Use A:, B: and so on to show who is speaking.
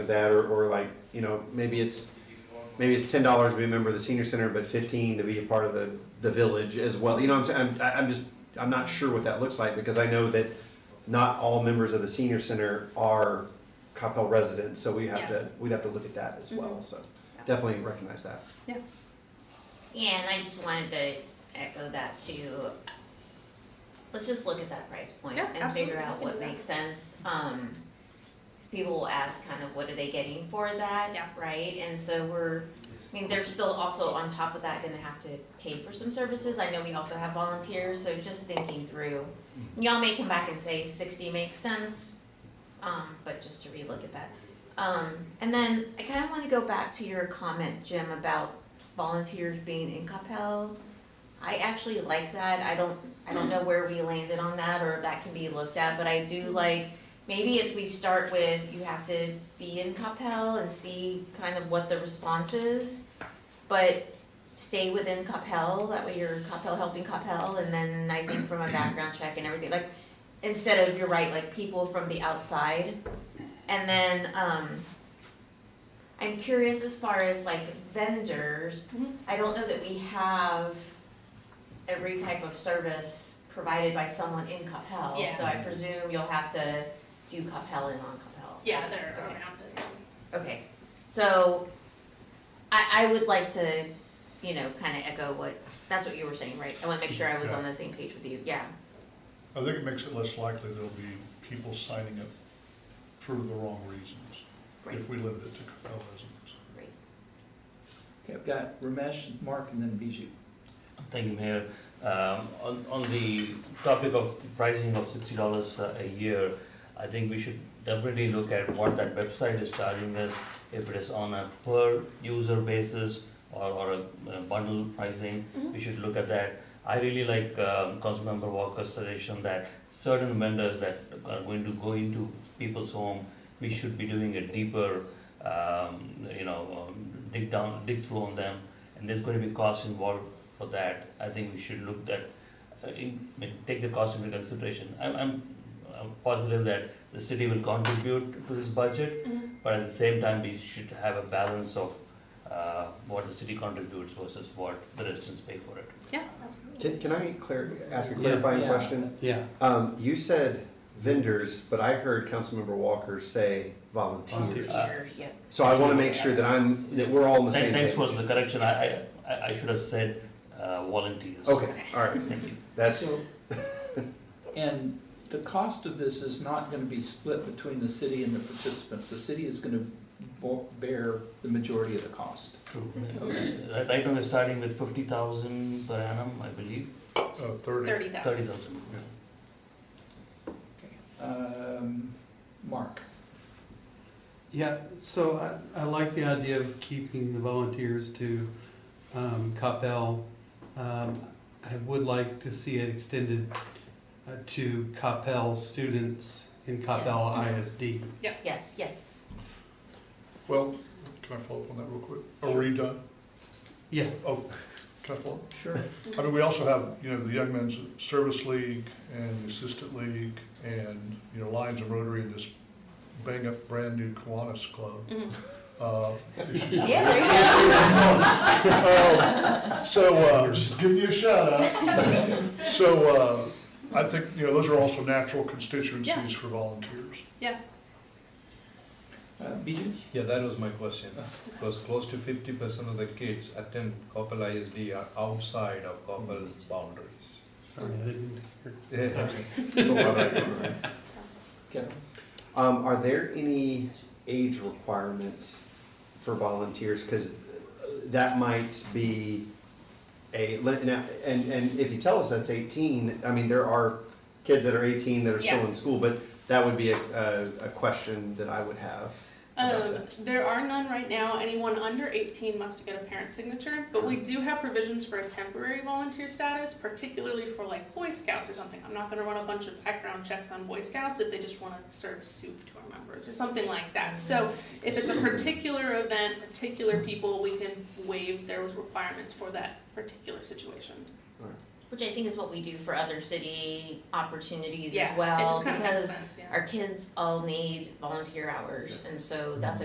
A: that or, or like you know maybe it's maybe it's ten dollars to be a member of the senior center but 15 to be a part of the the village as well you know what i'm saying I'm, I- I'm just i'm not sure what that looks like because i know that not all members of the senior center are coppell residents so we have
B: Yeah.
A: to we'd have to look at that as well so
B: Yeah.
A: definitely recognize that
C: Yeah, and I just wanted to echo that too. Let's just look at that price point
B: Yeah,
C: and
B: absolutely,
C: figure
B: we
C: out
B: can do
C: what
B: that.
C: makes sense. Um, 'cause people will ask kind of what are they getting for that,
B: Yeah.
C: right? And so we're, I mean, they're still also on top of that gonna have to pay for some services. I know we also have volunteers, so just thinking through. Y'all may come back and say sixty makes sense, um, but just to relook at that. Um, and then I kind of want to go back to your comment, Jim, about volunteers being in Capel. I actually like that. I don't, I don't know where we landed on that or if that can be looked at, but I do like, maybe if we start with, you have to be in Capel and see kind of what the response is, but stay within Capel, that way you're Capel helping Capel, and then I think from a background check and everything, like, instead of, you're right, like people from the outside. And then, um, I'm curious as far as like vendors,
B: Mhm.
C: I don't know that we have every type of service provided by someone in Capel.
B: Yeah.
C: So I presume you'll have to do Capel and non-Capel.
B: Yeah, they're
C: Okay.
B: around the
C: Okay, so I, I would like to, you know, kind of echo what, that's what you were saying, right? I want to make sure I was on the same page with you, yeah.
D: I think it makes it less likely there'll be people signing up for the wrong reasons,
C: Right.
D: if we limit it to Capel residents.
C: Great.
E: Okay, I've got Ramesh, Mark, and then Bijou.
F: Thank you, Mayor. Um, on, on the topic of pricing of sixty dollars uh, a year, I think we should definitely look at what that website is charging us, if it is on a per user basis or, or a uh, bundle pricing, we should look at that. I really like, um, Councilmember Walker's suggestion that certain vendors that are going to go into people's home, we should be doing a deeper, um, you know, um, dig down, dig through on them, and there's going to be costs involved for that, I think we should look that, uh, in, I mean, take the cost into consideration. I'm, I'm, I'm positive that the city will contribute to this budget,
B: Mhm.
F: but at the same time, we should have a balance of, uh, what the city contributes versus what the residents pay for it.
B: Yeah,
A: can,
B: absolutely.
A: can i clar- ask a
F: Yeah.
A: clarifying
E: Yeah.
A: question
F: Yeah.
A: um, you said vendors but i heard councilmember walker say volunteers
F: Volunteers. Uh,
C: Teachers, yeah.
A: so i want to make sure that i'm that we're all on the same
F: Thanks, thanks
A: page
F: for the correction, I, I- I, I should have said, uh, volunteers.
A: okay all right
F: Thank you.
A: that's
E: So- And the cost of this is not gonna be split between the city and the participants. The city is gonna bo- bear the majority of the cost.
F: True.
E: Okay.
F: Right- Right now, we're starting with fifty thousand per annum, I believe,
D: Uh, thirty,
B: Thirty
F: thirty
B: thousand.
F: thousand.
E: Um, Mark,
G: Yeah, so I, I like the idea of keeping the volunteers to um, Capel. Um, I would like to see it extended uh, to Capel students in Capel ISD.
C: Yes, yes.
D: well, can I follow up on that real quick? Are we done?
G: Yes.
D: Oh, can I follow? up?
E: sure.
D: I mean, we also have, you know, the Young Men's Service League and the Assistant League and, you know, Lions and Rotary and this bang-up brand-new Kiwanis Club.
B: Mhm.
D: Uh,
C: Yeah, there you go.
D: Um, So, uh, just giving you a shout out. So, uh, I think, you know, those are also natural constituencies for volunteers.
E: Uh, Bijou?
H: Yeah, that was my question. Because close to fifty percent of the kids attend Coppell ISD are outside of Coppell's boundaries.
G: Sorry, I didn't hear.
H: Yeah.
A: It's a lot of-
E: Kevin?
A: Um, are there any age requirements for volunteers? Because that might be a, now, and, and if you tell us that's eighteen, I mean, there are kids that are eighteen that are still
B: Yeah.
A: in school, but that would be a, a, a question that I would have. about
B: Um, there are none right now. Anyone under eighteen must get a parent signature, but we do have provisions for a temporary volunteer status, particularly for like Boy Scouts or something. I'm not gonna run a bunch of background checks on Boy Scouts if they just wanna serve soup to our members or something like that. So if it's a particular event, particular people, we can waive those requirements for that particular situation.
C: Which I think is what we do for other city opportunities
B: Yeah,
C: as
B: it
C: well,
B: just kind of makes
C: because
B: sense, yeah.
C: our kids all need volunteer hours, and so that's a